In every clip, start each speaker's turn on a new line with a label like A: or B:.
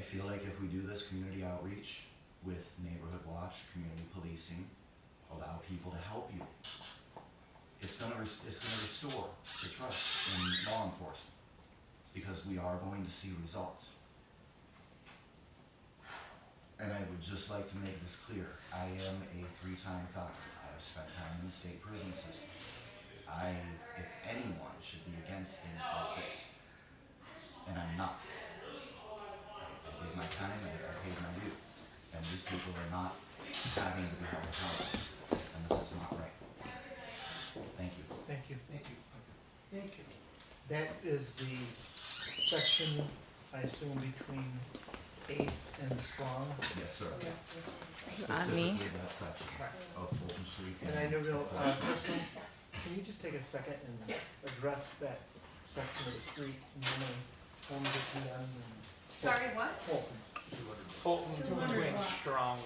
A: feel like if we do this community outreach with Neighborhood Watch, community policing, allow people to help you. It's gonna, res- it's gonna restore the trust in law enforcement, because we are going to see results. And I would just like to make this clear, I am a three-time felon, I have spent time in the state prison system. I, if anyone should be against things like this, and I'm not. I did my time, I, I paid my dues, and these people are not having to be held accountable, and this is not right. Thank you.
B: Thank you.
C: Thank you. Thank you.
B: That is the section, I assume, between eighth and Strong.
A: Yes, sir.
D: on me.
A: Specifically that section of Fulton Street.
B: And I know, real, uh, Crystal, can you just take a second and address that section of the street, and how many homes are condemned and.
E: Sorry, what?
B: Fulton.
C: Fulton between Strong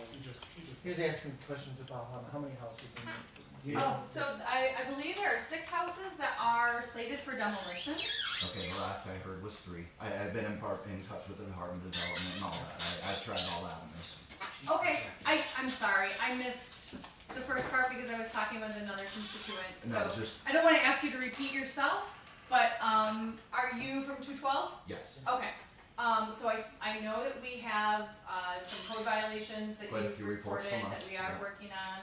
B: He was asking questions about how, how many houses in. the-
E: Oh, so I, I believe there are six houses that are slated for demolition.
A: Okay, the last I heard was three. I, I've been in part, in touch with the Department of Development and all that, I, I've tried all that, and there's
E: Okay, I, I'm sorry, I missed the first part because I was talking with another constituent,
A: No,
E: so.
A: just,
E: I don't wanna ask you to repeat yourself, but, um, are you from two twelve?
A: yes,
E: Okay, um, so I, I know that we have, uh, some code violations that
A: Quite a
E: you've
A: few reports
E: reported
A: from
E: that
A: us,
E: we are
A: yeah.
E: working on.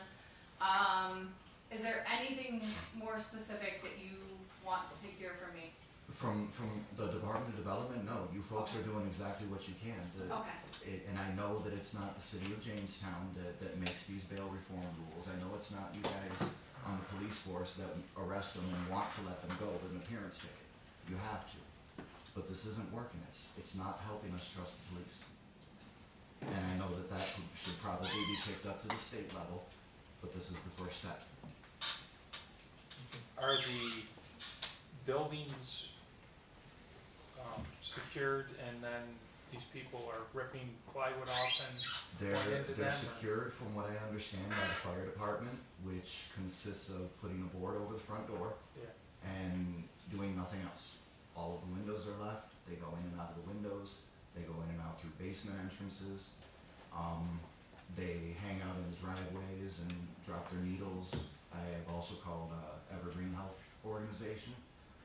E: Um, is there anything more specific that you want to hear from me?
A: from, from the Department of Development, no, you folks are doing exactly what you can to,
E: Okay.
A: it, and I know that it's not the city of Jamestown that, that makes these bail reform rules. I know it's not you guys on the police force that arrest them and want to let them go with an appearance ticket. You have to. But this isn't working. It's, it's not helping us trust the police. And I know that that should- should probably be picked up to the state level, but this is the first step.
C: Are the buildings um, secured and then these people are ripping plywood off and,
A: They're,
C: Point into
A: they're
C: them or-
A: secured, from what I understand, by the fire department, which consists of putting a board over the front door
C: yeah,
A: and doing nothing else. All of the windows are left, they go in and out of the windows, they go in and out through basement entrances. Um, they hang out in the driveways and drop their needles. I have also called, uh, Evergreen Health Organization,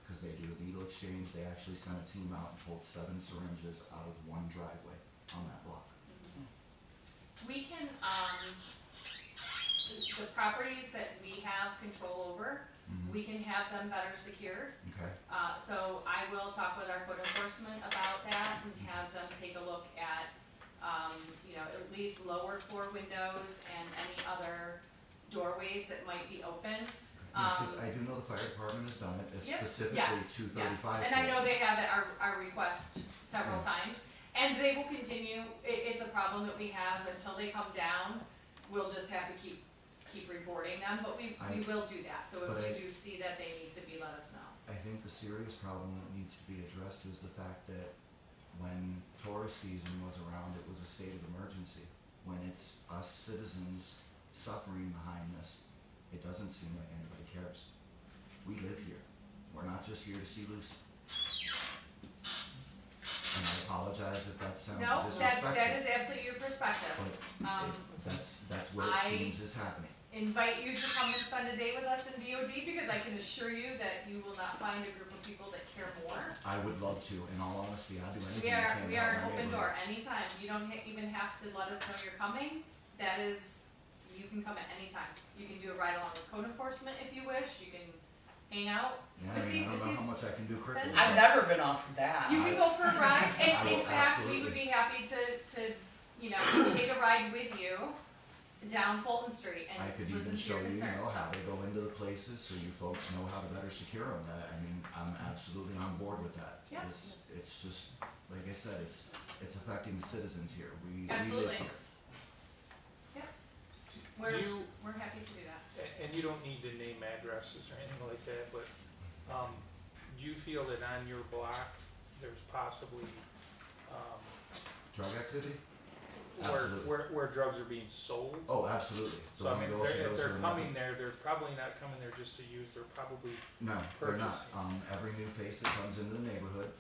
A: because they do a needle exchange, they actually sent a team out and pulled seven syringes out of one driveway on that block.
E: We can, um, the the properties that we have control over,
A: Mhm.
E: we can have them better secured.
A: Okay,
E: Uh, so I will talk with our code enforcement about that and have them take a look at, um, you know, at least lower floor windows and any other doorways that might be open.
A: because
E: Um,
A: I do know the fire department has done it, it's
E: Yep,
A: specifically
E: Yes,
A: two
E: yes,
A: thirty-five.
E: and I know they have at our, our request several times, and they will continue, it, it's a problem that we have until they come down, we'll just have to keep, keep rewarding them, but we, we
A: I-
E: will do that, so
A: but
E: if
A: I-
E: we do see that they need to be, let us know.
A: I think the serious problem that needs to be addressed is the fact that when Taurus season was around, it was a state of emergency. When it's us citizens suffering behind this, it doesn't seem like anybody cares. We live here. We're not just here to see Lucy. And I apologize if that sounds
E: No, that,
A: disrespectful,
E: that is absolutely your perspective,
A: but
E: um,
A: it- that's, that's what it
E: I-
A: seems is happening.
E: invite you to come and spend a day with us in DOD, because I can assure you that you will not find a group of people that care more.
A: I would love to, in all honesty, I'd do anything
E: We
A: I
E: are,
A: can. to
E: we
A: help
E: are
A: my
E: an open
A: neighborhood.
E: door anytime. You don't ha- even have to let us know you're coming. That is, you can come at any time. You can do a ride along with code enforcement if you wish. You can hang out.
A: Yeah,
E: But
A: I
E: see-
A: mean, I don't
E: but
A: know
E: see-
A: how much I can do quickly.
E: I've
A: but-
F: I've never been offered that.
E: You can go for a ride.
A: Uh, I
E: And in
A: will,
E: fact, we would
A: absolutely.
E: be happy to, to, you know, take a ride with you down Fulton Street
A: I
E: and
A: could even
E: listen to
A: show
E: your
A: you, you
E: concerns.
A: know, how
E: So-
A: they go into the places, so you folks know how to better secure them, that, I mean, I'm absolutely on board with that.
E: Yeah.
A: It's, it's just, like I said, it's, it's affecting the citizens here, we, we live
E: Absolutely.
A: here.
E: We're,
C: you,
E: we're happy to do that.
C: a- and you don't need to name addresses or anything like that, but um, do you feel that on your block, there's possibly um,
A: Drug activity?
C: where,
A: Absolutely.
C: where, where drugs are being sold?
A: Oh, absolutely. The
C: So I mean,
A: one girl, she
C: they're,
A: goes to
C: if they're
A: another.
C: coming there, they're probably not coming there just to use, they're probably
A: No, they're not,
C: purchasing.
A: um, every new face that comes into the neighborhood,